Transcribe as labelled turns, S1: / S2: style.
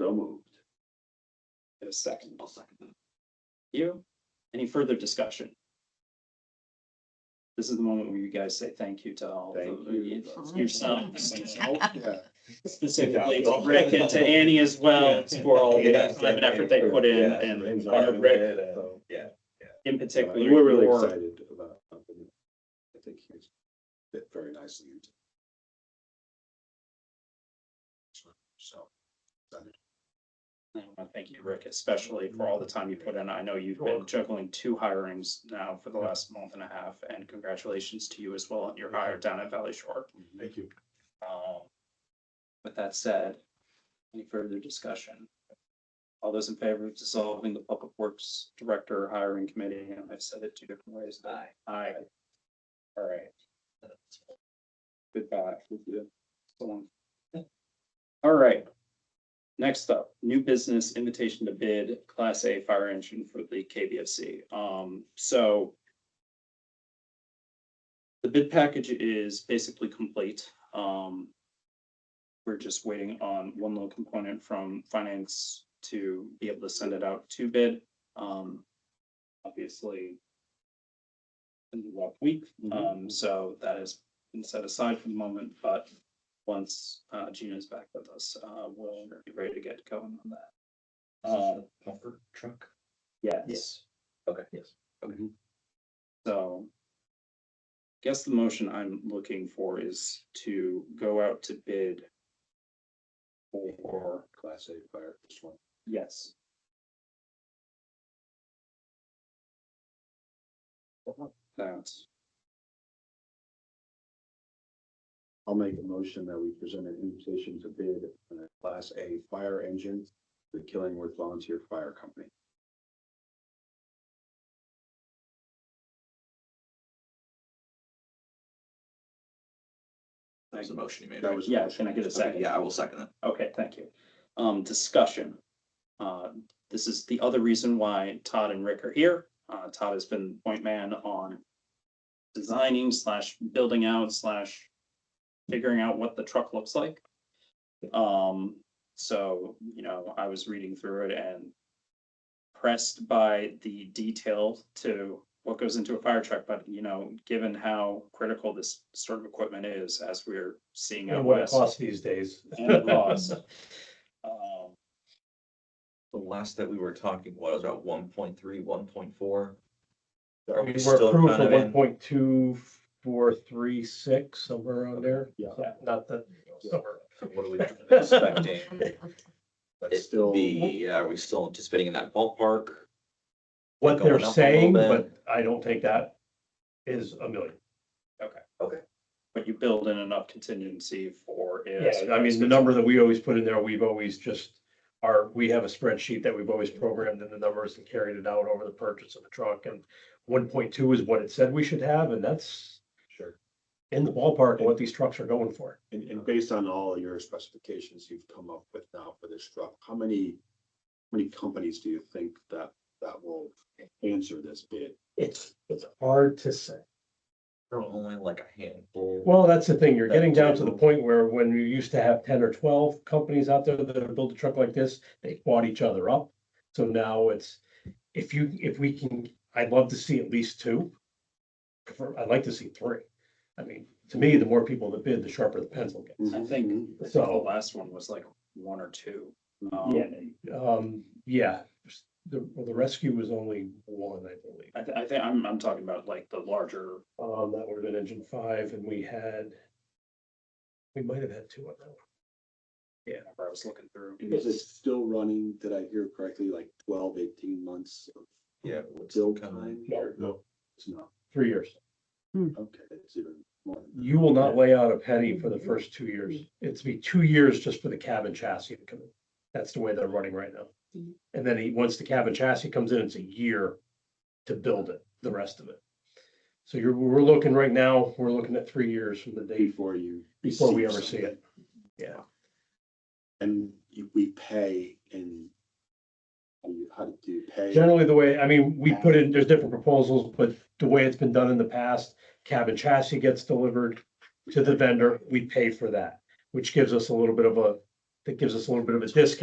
S1: So moved.
S2: Get a second. I'll second that. You, any further discussion? This is the moment where you guys say thank you to all.
S1: Thank
S2: the-
S1: you.
S2: Yourselves,
S3: Yeah.
S2: specifically to Rick and to Annie as well for all the time and effort they put in and uh, Rick
S1: Yeah.
S2: in particular.
S3: We're really
S2: your-
S3: excited about. Anthony. I think he's fit very nicely into. So.
S2: I wanna Thank you, Rick, especially for all the time you put in. I know you've been juggling two hirings now for the last month and a half, and congratulations to you as well on your hire down at Valley Shore.
S3: Thank you.
S2: Um, With that said, any further discussion? All those in favor of dissolving the Public Works Director Hiring Committee, and I've said it two different ways. but-
S4: Aye.
S2: Aye. All right. Goodbye. So long. All right. Next up, new business invitation to bid Class A fire engine for the KBFC. Um, so the bid package is basically complete. Um, we're just waiting on one little component from finance to be able to send it out to bid. Um, obviously in the last week, um, so that has been set aside for the moment, but once uh Gina's back with us, uh, we'll be ready to get going on that. Uh,
S1: Puffer truck.
S2: yes,
S1: Okay, yes.
S2: so guess the motion I'm looking for is to go out to bid for,
S3: Class A fire, just one.
S2: yes, That.
S3: I'll make a motion that we present an invitation to bid on a class A fire engine, to the Killingworth Volunteer Fire Company.
S1: That was a motion you made.
S3: That
S1: right?
S3: was-
S2: Yeah, can I get a
S1: Okay,
S2: second?
S1: yeah, I will second that.
S2: Okay, thank you. Um, discussion. Uh, this is the other reason why Todd and Rick are here. Uh, Todd has been point man on designing slash building out slash figuring out what the truck looks like. Um, so, you know, I was reading through it and pressed by the detail to what goes into a fire truck, but you know, given how critical this sort of equipment is, as we're seeing out
S5: And what it
S2: west
S5: costs these days.
S2: and the cost. Um,
S1: The last that we were talking was about 1.3, 1.4.
S5: I
S1: Are we
S5: mean, we're
S1: still
S5: approved
S1: kind
S5: for
S1: of
S5: one
S1: in-
S5: point two four three six, somewhere around there.
S3: Yeah.
S5: So, Not that.
S1: What are we expecting?
S3: That's
S1: It
S3: still,
S1: be, uh, are we still anticipating in that ballpark?
S5: What
S1: Going
S5: they're
S1: up a little
S5: saying,
S1: bit.
S5: but I don't think that is a million.
S2: But you build in enough contingency for. if-
S5: Yeah, I mean, the number that we always put in there, we've always just, our, we have a spreadsheet that we've always programmed in the numbers and carried it out over the purchase of the truck and one point two is what it said we should have, and that's
S3: sure.
S5: in the ballpark of what these trucks are going for.
S3: And, and based on all your specifications you've come up with now for this truck, how many, how many companies do you think that, that will answer this bid?
S5: It's, it's hard to say.
S1: Only like a handful.
S5: Well, that's the thing, you're
S1: That
S5: getting down to the
S1: general-
S5: point where when you used to have ten or twelve companies out there that build a truck like this, they bought each other up. So now it's, if you, if we can, I'd love to see at least two. Prefer- I'd like to see three. I mean, to me, the more people that bid, the sharper the pencil gets.
S2: I think I think the
S5: So-
S2: last one was like one or two. Um,
S5: Yeah, um, yeah, the, well, the rescue was only one, I believe.
S2: I thi- I think, I'm, I'm talking about like the larger,
S5: Um, that would have been engine five and we had, we might have had two on that one.
S2: yeah, I was looking through.
S3: Is it still running, did I hear correctly, like 12, 18 months of
S1: Yeah. what's
S3: build
S1: kind of-
S3: time?
S5: No,
S3: No. It's not,
S5: Three years.
S3: okay, it's even more. than that.
S5: You will not lay out a penny for the first two years. It's be two years just for the cabin chassis to come in. That's the way they're running right now.
S4: Mhm.
S5: And then he, once the cabin chassis comes in, it's a year to build it, the rest of it. So you're, we're looking right now, we're looking at three years from the day
S3: Before you.
S5: before we
S3: receive
S5: ever see
S3: something.
S5: it. Yeah.
S3: And you- we pay and and you- how do you pay?
S5: Generally, the way, I mean, we put in, there's different proposals, but the way it's been done in the past, cabin chassis gets delivered to the vendor, we pay for that, which gives us a little bit of a, that gives us a little bit of a discount